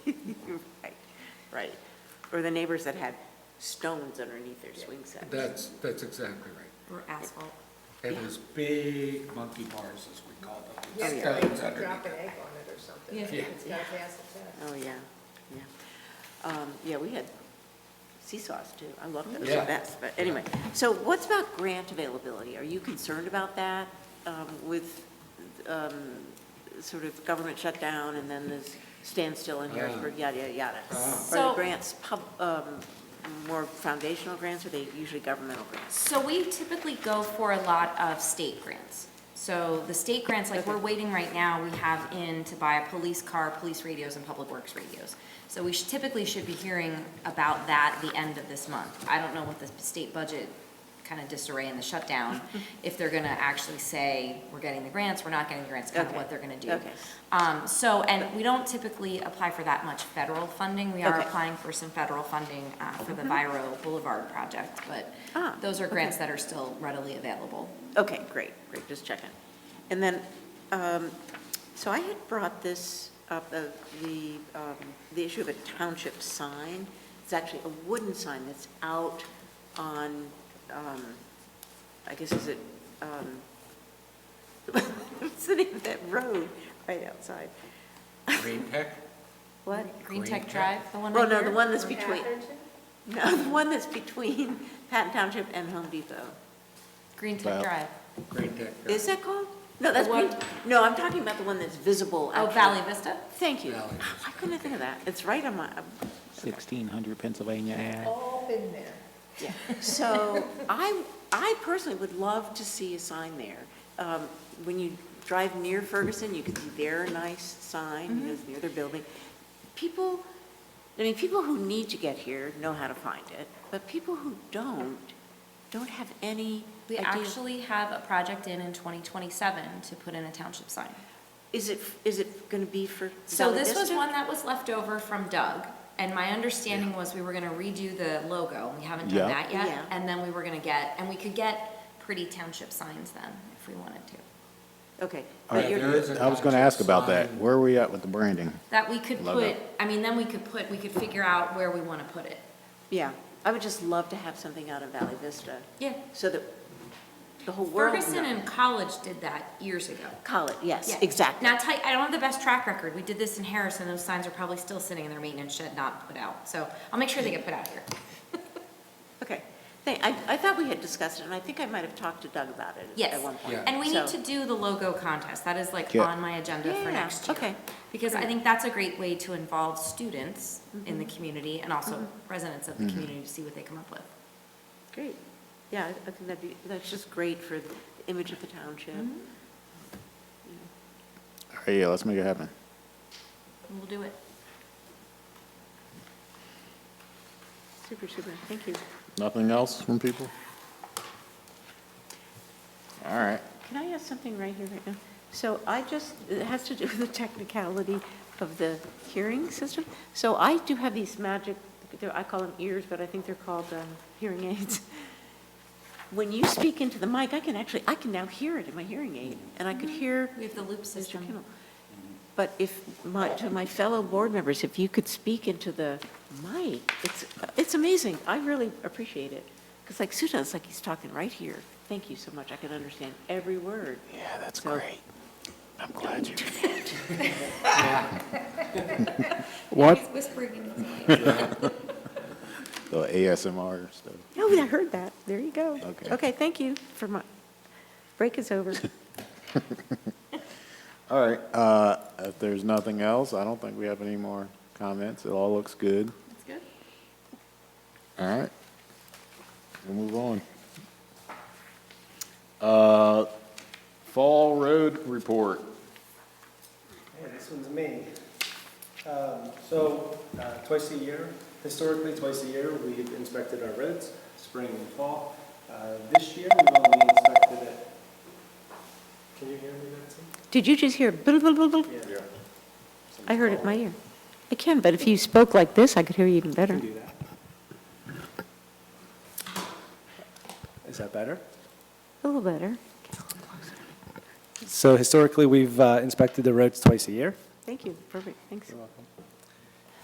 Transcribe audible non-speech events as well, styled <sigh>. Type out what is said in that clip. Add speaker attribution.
Speaker 1: <laughs> right? Or the neighbors that had stones underneath their swing set.
Speaker 2: That's, that's exactly right.
Speaker 3: Or asphalt.
Speaker 2: And those big monkey bars, as we call them. with
Speaker 4: Yeah,
Speaker 2: stones
Speaker 4: like drop
Speaker 2: underneath
Speaker 4: an
Speaker 2: it.
Speaker 4: egg on it or something.
Speaker 3: Yeah.
Speaker 2: Yeah.
Speaker 4: It's gotta pass the test.
Speaker 1: Oh, yeah, yeah. Um, yeah, we had seesaws too. I love those the
Speaker 2: Yeah.
Speaker 1: best, but anyway. So what's about grant availability? Are you concerned about that um, with um, sort of government shutdown and then this standstill in
Speaker 2: Ah.
Speaker 1: Harrisburg, yada, yada, yada?
Speaker 2: Ah.
Speaker 1: Are the
Speaker 3: So-
Speaker 1: grants pub, um, more foundational grants, or are they usually governmental grants?
Speaker 3: So we typically go for a lot of state grants. So the state grants, like we're waiting right now, we have in to buy a police car, police radios, and public works radios. So we should- typically should be hearing about that the end of this month. I don't know with the state budget kind of disarray and
Speaker 1: <laughs>
Speaker 3: the shutdown, if they're gonna actually say, we're getting the grants, we're not getting the grants, kind of
Speaker 1: Okay.
Speaker 3: what they're gonna do.
Speaker 1: Okay.
Speaker 3: Um, so, and we don't typically apply for that much federal funding. We are
Speaker 1: Okay.
Speaker 3: applying for some federal funding uh, for the Viro Boulevard project, but
Speaker 1: Ah,
Speaker 3: those are grants that are still readily available.
Speaker 1: Okay, great, great, just checking. And then, um, so I had brought this up, uh, the, um, the issue of a township sign. It's actually a wooden sign that's out on, um, I guess is it, um, <laughs> what's the name of that road right outside?
Speaker 2: Green tech?
Speaker 1: What?
Speaker 3: Green
Speaker 2: Green
Speaker 3: Tech
Speaker 2: Tech?
Speaker 3: Drive, the one
Speaker 1: Well,
Speaker 3: right
Speaker 1: no, the
Speaker 3: here?
Speaker 1: one that's
Speaker 4: Or
Speaker 1: between,
Speaker 4: Atherton?
Speaker 1: no, the one that's between Patton Township and Home Depot.
Speaker 3: Green Tech
Speaker 5: Val.
Speaker 3: Drive.
Speaker 2: Green tech. yeah.
Speaker 1: Is that called? No, that's,
Speaker 3: The one-
Speaker 1: Green- no, I'm talking about the one that's visible.
Speaker 3: Oh,
Speaker 1: actually.
Speaker 3: Valley Vista?
Speaker 1: Thank you. Oh,
Speaker 2: Valley.
Speaker 1: I couldn't I think of that. It's right on my, uh,
Speaker 5: 1600 Pennsylvania Ave.
Speaker 4: All been there.
Speaker 3: <laughs>
Speaker 1: yeah. So I, I personally would love to see a sign there. Um, When you drive near Ferguson, you can see their nice sign,
Speaker 3: Mm-hmm.
Speaker 1: you know, it's near their building. People, I mean, people who need to get here know how to find it, but people who don't, don't have any
Speaker 3: We
Speaker 1: idea.
Speaker 3: actually have a project in in 2027 to put in a township sign.
Speaker 1: Is it, is it going to be for
Speaker 3: So
Speaker 1: Bella
Speaker 3: this was
Speaker 1: Vista?
Speaker 3: one that was left over from Doug, and my understanding was we were gonna redo the logo, we haven't
Speaker 5: Yeah.
Speaker 3: done that
Speaker 1: Yeah.
Speaker 3: yet. And then we were gonna get, and we could get pretty township signs then, if we wanted to.
Speaker 1: Okay.
Speaker 5: All right,
Speaker 1: But you're-
Speaker 2: There is a
Speaker 5: I was going to ask about that.
Speaker 2: sign.
Speaker 5: Where are we at with the branding?
Speaker 3: That we could
Speaker 5: Logo.
Speaker 3: put, I mean, then we could put, we could figure out where we wanna put it.
Speaker 1: Yeah, I would just love to have something out of Valley Vista,
Speaker 3: Yeah.
Speaker 1: so that the whole world knows.
Speaker 3: Ferguson and College did that years ago.
Speaker 1: College, yes,
Speaker 3: Yeah.
Speaker 1: exactly.
Speaker 3: Now, tight, I don't have the best track record. We did this in Harrison. Those signs are probably still sitting in their maintenance shed, not put out. So I'll make sure they get put out here.
Speaker 1: Okay, Thank- I, I thought we had discussed it, and I think I might have talked to Doug about it
Speaker 3: Yes.
Speaker 1: at one point.
Speaker 2: Yeah.
Speaker 3: And we need
Speaker 1: So-
Speaker 3: to do the logo contest. That is like
Speaker 5: Yeah.
Speaker 3: on my agenda for
Speaker 1: Yeah,
Speaker 3: next year.
Speaker 1: okay.
Speaker 3: Because I think that's a great way to involve students in
Speaker 1: Mm-hmm.
Speaker 3: the community and also residents of the community to see what they come up with.
Speaker 1: Great, yeah, I I think that'd be, that's just great for the image of the township.
Speaker 3: Mm-hmm.
Speaker 5: All right, yeah, let's make it happen.
Speaker 3: And We'll do it.
Speaker 1: Super, super, thank you.
Speaker 5: Nothing else from people? All right.
Speaker 1: Can I ask something right here, right now? So I just, it has to do with the technicality of the hearing system. So I do have these magic, they're- I call them ears, but I think they're called um, hearing aids. When you speak into the mic, I can actually, I can now hear it in my hearing aid, and I could hear
Speaker 3: We have the loop
Speaker 1: Mr.
Speaker 3: system.
Speaker 1: Kimmel. But if, my, to my fellow board members, if you could speak into the mic, it's, it's amazing. I really appreciate it. Because like Suda, it's like he's talking right here. Thank you so much. I can understand every word.
Speaker 5: Yeah, that's
Speaker 1: So- great.
Speaker 5: I'm glad you.
Speaker 3: He's
Speaker 5: What?
Speaker 3: whispering in his mic.
Speaker 5: The ASMR stuff.
Speaker 1: No, Oh, I heard that. There you go.
Speaker 5: Okay.
Speaker 1: Okay, thank you for my, break is over. <laughs>
Speaker 5: All right, uh, if there's nothing else, I don't think we have any more comments. It all looks good.
Speaker 3: That's good.
Speaker 5: All right. We'll move on. Uh, Fall Road Report.
Speaker 6: Yeah, this one's me. Um, So, uh, twice a year, historically, twice a year, we've inspected our roads, spring and fall. Uh, This year, we've only inspected it, can you hear me, Betsy?
Speaker 1: Did you just hear? blah, blah, blah, blah?
Speaker 6: Yeah.
Speaker 1: I heard it in my ear. I can, but if you spoke like this, I could hear you even
Speaker 6: Can
Speaker 1: better.
Speaker 6: do that. Is that better?
Speaker 1: A little better.
Speaker 6: So historically, we've uh, inspected the roads twice a year.
Speaker 1: Thank you. Perfect. Thanks.
Speaker 6: welcome.